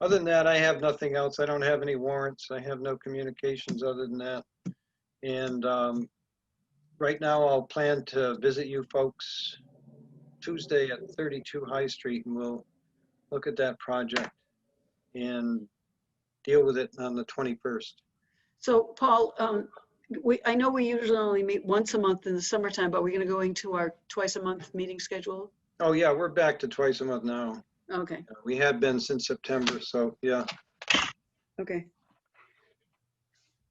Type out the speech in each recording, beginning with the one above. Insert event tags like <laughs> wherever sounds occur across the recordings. Other than that, I have nothing else. I don't have any warrants. I have no communications other than that. And um, right now, I'll plan to visit you folks Tuesday at 32 High Street, and we'll look at that project and deal with it on the 21st. So Paul, um, we, I know we usually only meet once a month in the summertime, but we're gonna go into our twice a month meeting schedule? Oh, yeah, we're back to twice a month now. Okay, We have been since September, so yeah. okay.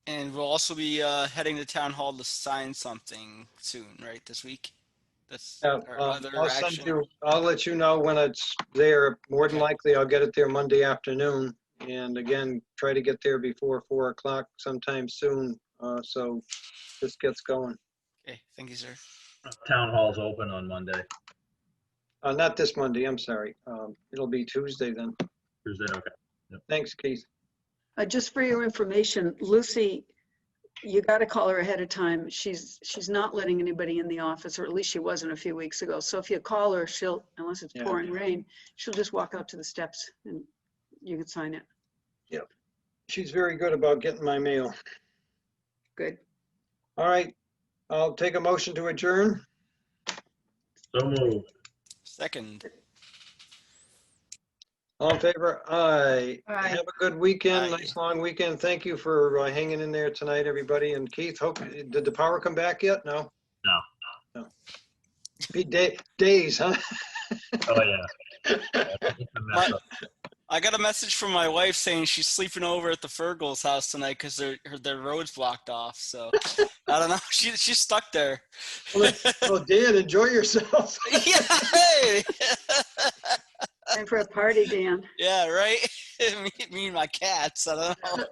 And we'll also be uh, heading to town hall to sign something soon, right? This week. That's Yeah, our uh, other I'll send action. you, I'll let you know when it's there. More than likely, I'll get it there Monday afternoon. And again, try to get there before four o'clock sometime soon, uh, so this gets going. Okay, thank you, sir. Town hall's open on Monday, Uh, not this Monday, I'm sorry. Um, it'll be Tuesday then. Tuesday, okay. Thanks, Keith. Uh, just for your information, Lucy, you gotta call her ahead of time. She's, she's not letting anybody in the office, or at least she wasn't a few weeks ago. So if you call her, she'll, unless it's Yeah. pouring rain, she'll just walk out to the steps and you can sign it. She's very good about getting my mail. Good. All right, I'll take a motion to adjourn. So moved. Second. All in favor? Aye. Aye. Have a good weekend, Aye. nice long weekend. Thank you for uh, hanging in there tonight, everybody. And Keith, hope, did the power come back yet? No? No. No. Be day, days, huh? Oh, yeah. It's a mess up. I got a message from my wife saying she's sleeping over at the Fergal's house tonight because their her- their road's blocked off. So <laughs> I don't know. <laughs> She she's stuck there. Well, Dan, enjoy yourself. <laughs> yeah. Time for a party, Dan. <laughs> yeah. Right. <laughs> me, me and my cats. I don't know.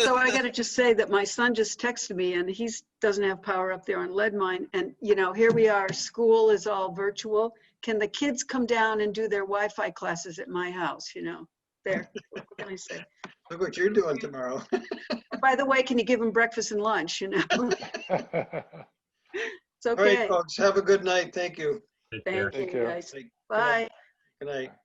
So I gotta just say that my son just texted me and he's, doesn't have power up there on lead mine. And, you know, here we are, school is all virtual. Can the kids come down and do their Wi-Fi classes at my house, you know? There, what can I say? Look what you're doing tomorrow. By the way, can you give them breakfast and lunch, you know? <laughs> It's All right, okay. folks, have a good night. Thank you. Take care. Thank you, Take care. guys. Take- Bye. Good night.